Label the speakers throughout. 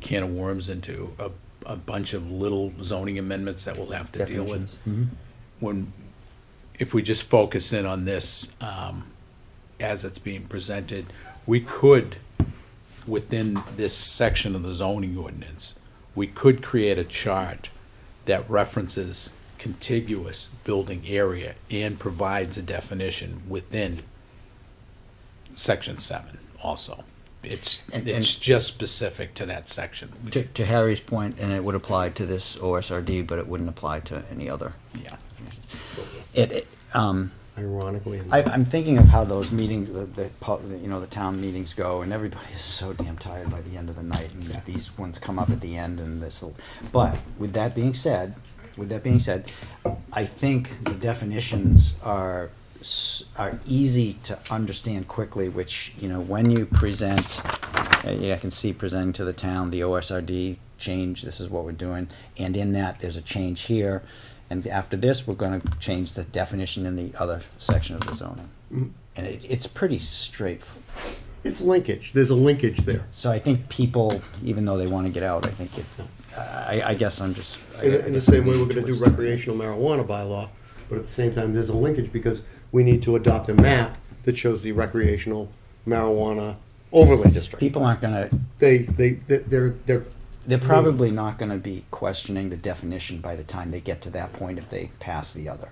Speaker 1: can of worms into a, a bunch of little zoning amendments that we'll have to deal with. When, if we just focus in on this, um, as it's being presented, we could, within this section of the zoning ordinance, we could create a chart that references contiguous building area and provides a definition within section seven also. It's,
Speaker 2: And-
Speaker 1: it's just specific to that section. We-
Speaker 2: To, to Harry's point, and it would apply to this OSRD, but it wouldn't apply to any other.
Speaker 1: Yeah.
Speaker 2: It, it, um,
Speaker 3: Ironically,
Speaker 2: I, I'm thinking of how those meetings, the, the, pub- the, you know, the town meetings go, and everybody is so damn tired by the end of the night, and these ones come up at the end, and this. But with that being said, with that being said, I think the definitions are s- are easy to understand quickly. Which you know, when you present, uh, yeah, I can see presenting to the town the OSRD change. This is what we're doing, and in that, there's a change here. And after this, we're gonna change the definition in the other section of the zoning.
Speaker 3: Mm-hmm.
Speaker 2: And it, it's pretty straight,
Speaker 3: it's linkage. There's a linkage there.
Speaker 2: so I think people, even though they wanna get out, I think it, I, I guess I'm just. I-
Speaker 3: In,
Speaker 2: I
Speaker 3: in the
Speaker 2: guess
Speaker 3: same
Speaker 2: I'm
Speaker 3: way, we're
Speaker 2: leaning
Speaker 3: gonna do
Speaker 2: towards that.
Speaker 3: recreational marijuana bylaw, but at the same time, there's a linkage because we need to adopt a map that shows the recreational marijuana overlay district.
Speaker 2: People aren't gonna,
Speaker 3: They, they, they- they're, they're,
Speaker 2: they're probably not gonna be questioning the definition by the time they get to that point if they pass the other.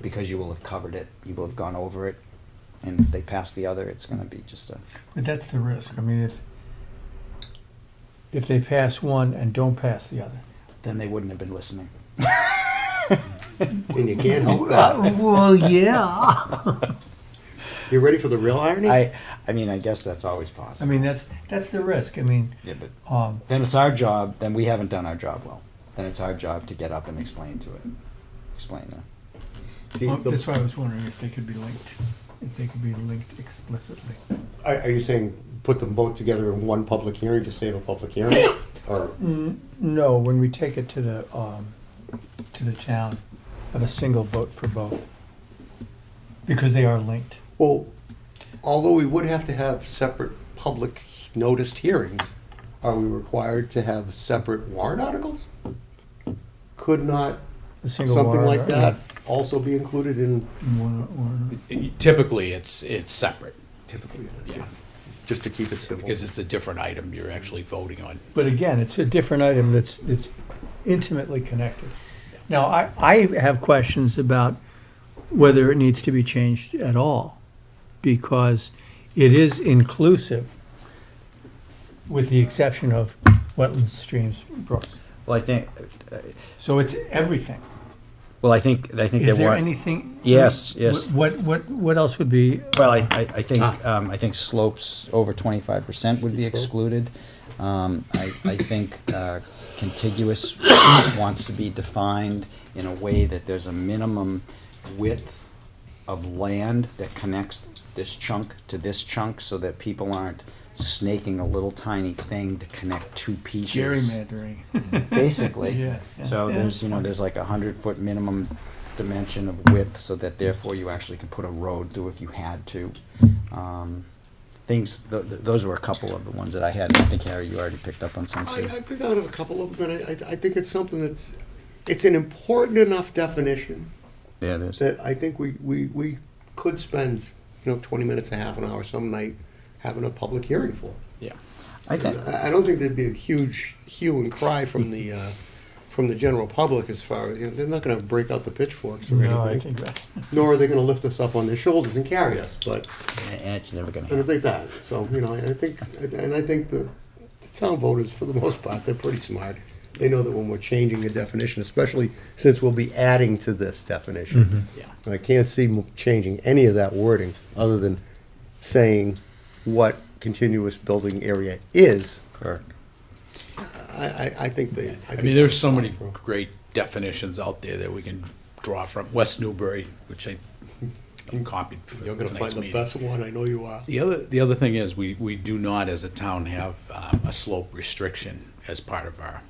Speaker 2: Because you will have covered it, you will have gone over it, and if they pass the other, it's gonna be just a,
Speaker 4: But that's the risk. I mean, if if they pass one and don't pass the other.
Speaker 2: then they wouldn't have been listening.
Speaker 3: and you can't help that.
Speaker 4: Well, yeah.
Speaker 3: You ready for the real irony?
Speaker 2: I, I mean, I guess that's always
Speaker 4: I
Speaker 2: possible.
Speaker 4: mean, that's that's the risk. I mean,
Speaker 2: Yeah, but
Speaker 4: um,
Speaker 2: then it's our job, then we haven't done our job well. Then it's our job to get up and explain to it, explain that.
Speaker 3: The- the-
Speaker 4: that's why I was wondering if they could be linked, if they could be linked explicitly.
Speaker 3: Are, are you saying put them both together in one public hearing to save a public hearing? Or,
Speaker 4: No, when we take it to the um, to the town, have a single vote for both because they are linked.
Speaker 3: well, although we would have to have separate public noticed hearings, are we required to have separate warrant articles? Could not
Speaker 4: A single
Speaker 3: something
Speaker 4: warrant
Speaker 3: like
Speaker 4: or-
Speaker 3: that also be included in
Speaker 4: in one warrant.
Speaker 1: Typically, it's, it's separate
Speaker 3: typically, just to keep it simple?
Speaker 1: because it's a different item you're actually voting on.
Speaker 4: But again, it's a different item that's, that's intimately connected. Now, I, I have questions about whether it needs to be changed at all, because it is inclusive, with the exception of wetlands, streams, brooks.
Speaker 2: Well, I think,
Speaker 4: So it's everything.
Speaker 2: well, I think, I think
Speaker 4: Is
Speaker 2: there
Speaker 4: there
Speaker 2: were,
Speaker 4: anything?
Speaker 2: Yes, yes.
Speaker 4: What, what, what else would be,
Speaker 2: well, I, I I think, um, I think slopes over twenty-five percent would be excluded. Um, I, I think, uh, contiguous wants to be defined in a way that there's a minimum width of land that connects this chunk to this chunk, so that people aren't snaking a little tiny thing to connect two pieces.
Speaker 4: gerrymandering?
Speaker 2: basically.
Speaker 4: Yeah, yeah.
Speaker 2: So
Speaker 4: Yeah.
Speaker 2: there's, you know, there's like a hundred foot minimum dimension of width, so that therefore you actually can put a road through if you had to. Um, Things, th- th- those were a couple of the ones that I had, I think Harry, you already picked up on some
Speaker 3: I,
Speaker 2: too.
Speaker 3: I picked out a couple of them, and I, I- I think it's something that's, it's an important enough definition
Speaker 2: Yeah, it is.
Speaker 3: that I think we, we, we could spend, you know, twenty minutes, a half an hour, some night, having a public hearing for.
Speaker 1: Yeah.
Speaker 2: I think,
Speaker 3: I, I don't think there'd be a huge hue and cry from the, uh, from the general public as far as, you know, they're not gonna break out the pitchforks or
Speaker 4: No, I
Speaker 3: anything.
Speaker 4: think that.
Speaker 3: Nor are they gonna lift us up on their shoulders and carry us, but
Speaker 2: and it's never gonna
Speaker 3: I don't
Speaker 2: happen.
Speaker 3: think that. So, you know, I think, and I think the, the town voters, for the most part, they're pretty smart. They know that when we're changing a definition, especially since we'll be adding to this definition.
Speaker 1: Yeah.
Speaker 3: And I can't see m- changing any of that wording, other than saying what continuous building area is.
Speaker 2: Correct.
Speaker 3: I, I, I think they.
Speaker 1: I
Speaker 3: think
Speaker 1: mean, there's so
Speaker 3: that's
Speaker 1: many
Speaker 3: fine.
Speaker 1: great definitions out there that we can draw from. West Newbury, which I copied for
Speaker 3: Hmm. You're gonna find
Speaker 1: tonight's
Speaker 3: the
Speaker 1: meeting.
Speaker 3: best one, I know you are.
Speaker 1: The other, the other thing is, we, we do not as a town have um, a slope restriction as part of our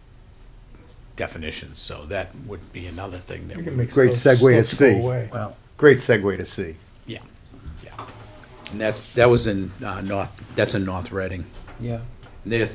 Speaker 1: definitions, so that would be another thing that
Speaker 4: we can
Speaker 1: we,
Speaker 4: make
Speaker 3: Great
Speaker 4: slopes-
Speaker 3: segue to
Speaker 4: slopes go
Speaker 3: see.
Speaker 4: away.
Speaker 2: Well,
Speaker 3: Great segue to see.
Speaker 1: yeah, yeah. And that's, that was in, uh, North, that's in North Reading.
Speaker 2: yeah.
Speaker 1: They're